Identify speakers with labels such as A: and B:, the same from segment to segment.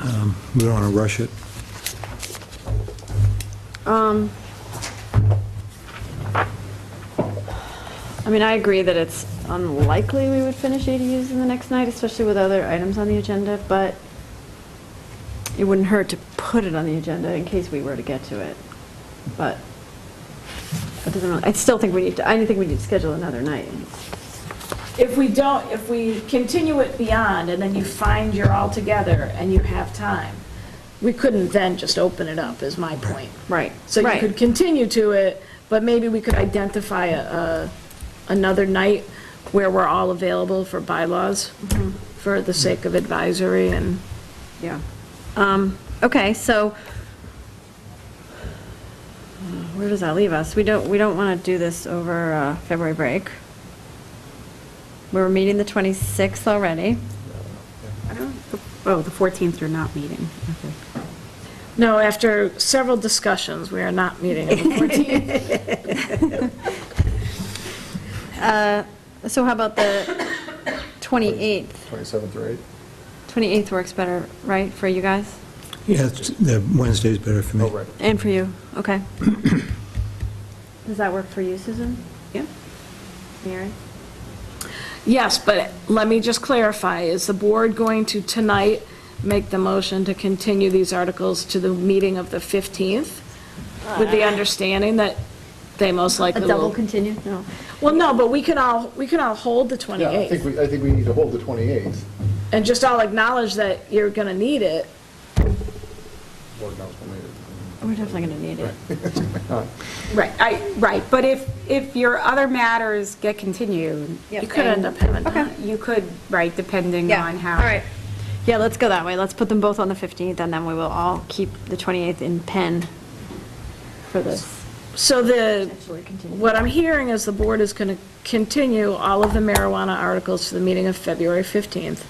A: Um, We don't want to rush it.
B: Um, I mean, I agree that it's unlikely we would finish ADUs in the next night, especially with other items on the agenda, but it wouldn't hurt to put it on the agenda in case we were to get to it. But it doesn't, really- I still think we need to, I think we need to schedule another night.
C: If we don't, if we continue it beyond, and then you find you're all together and you have time, we couldn't then just open it up, is my point.
B: Right.
C: So you
B: Right.
C: could continue to it, but maybe we could identify a, a- another night where we're all available for bylaws, for the sake of advisory and.
B: Yeah. Um, Okay, so uh, where does that leave us? We don't, we don't want to do this over uh, February break. We're meeting the 26th already.
D: Oh, the 14th you're not meeting. Okay.
C: No, after several discussions, we are not meeting on the 14th.
B: Uh, So how about the 28th?
E: 27th or 8th?
B: 28th works better, right, for you guys?
A: Yeah, it's- the Wednesday's better for me.
E: Oh, right.
B: And for you, okay. Does that work for you, Susan? Yeah. Mary?
C: Yes, but let me just clarify, is the board going to tonight make the motion to continue these articles to the meeting of the 15th? With the understanding that they most likely
B: Uh, A
C: will.
B: double continue? No.
C: Well, no, but we can all, we can all hold the
E: Yeah, I think
C: 28th
E: we, I think we need to hold the 28th.
C: and just all acknowledge that you're going to need it.
E: Board knows when they-
B: We're definitely going to need it.
D: Right, I, right, but if, if your other matters get continued.
B: Yep.
C: You could end up having that.
D: You could, right, depending
B: Yeah,
D: on how.
B: All right. Yeah, let's go that way. Let's put them both on the 15th, and then we will all keep the 28th in pen for this.
C: So the,
B: Potentially continue.
C: what I'm hearing is the board is going to continue all of the marijuana articles to the meeting of February 15th,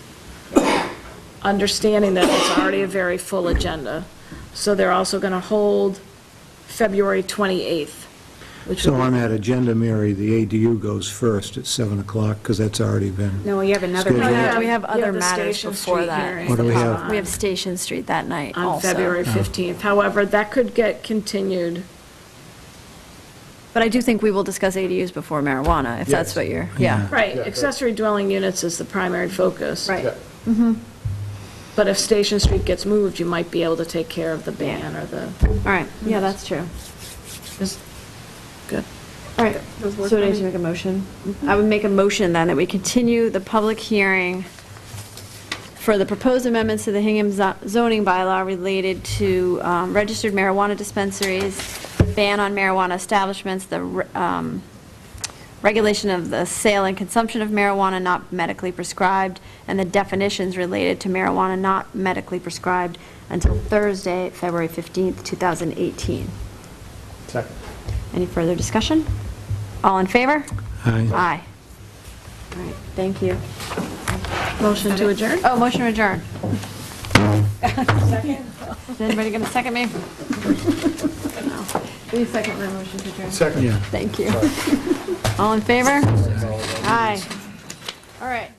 C: understanding that it's already a very full agenda. So they're also going to hold February 28th, which
A: So on
C: would
A: that agenda, Mary, the ADU goes first at 7 o'clock, because that's already been...
D: No, you have another.
A: Schedule.
B: No,
A: Yeah.
B: no, we have
C: Yeah,
B: other
C: the
B: matters
C: Station
B: before
C: Street
B: that.
C: hearing
A: What do we have?
C: on-
B: We have Station Street that night also.
C: On February 15th. However, that could get continued.
B: But I do think we will discuss ADUs before marijuana, if that's
E: Yes.
B: what you're,
A: Yeah.
B: yeah.
C: Right,
E: Yeah, right.
C: accessory dwelling units is the primary focus.
B: Right.
E: Yeah,
C: But if Station Street gets moved, you might be able to take care of the ban or the,
B: All right, yeah, that's true.
C: is, good.
B: All right,
D: Those work
B: so do I
D: for
B: need to
D: me. Mm-hmm.
B: make a motion? I would make a motion then that we continue the public hearing for the proposed amendments to the Hingham zo- zoning bylaw related to um, registered marijuana dispensaries, the ban on marijuana establishments, the re- um, regulation of the sale and consumption of marijuana not medically prescribed, and the definitions related to marijuana not medically prescribed until Thursday, February 15th, 2018.
E: Second.
B: Any further discussion? All in favor?
A: Aye.
B: Aye. All right, thank you.
C: Motion to adjourn?
B: Oh, motion adjourned. Is anybody going to second me? Will you second my motion to adjourn?
E: Second.
A: Yeah.
B: Thank you. All in favor? Aye. All right.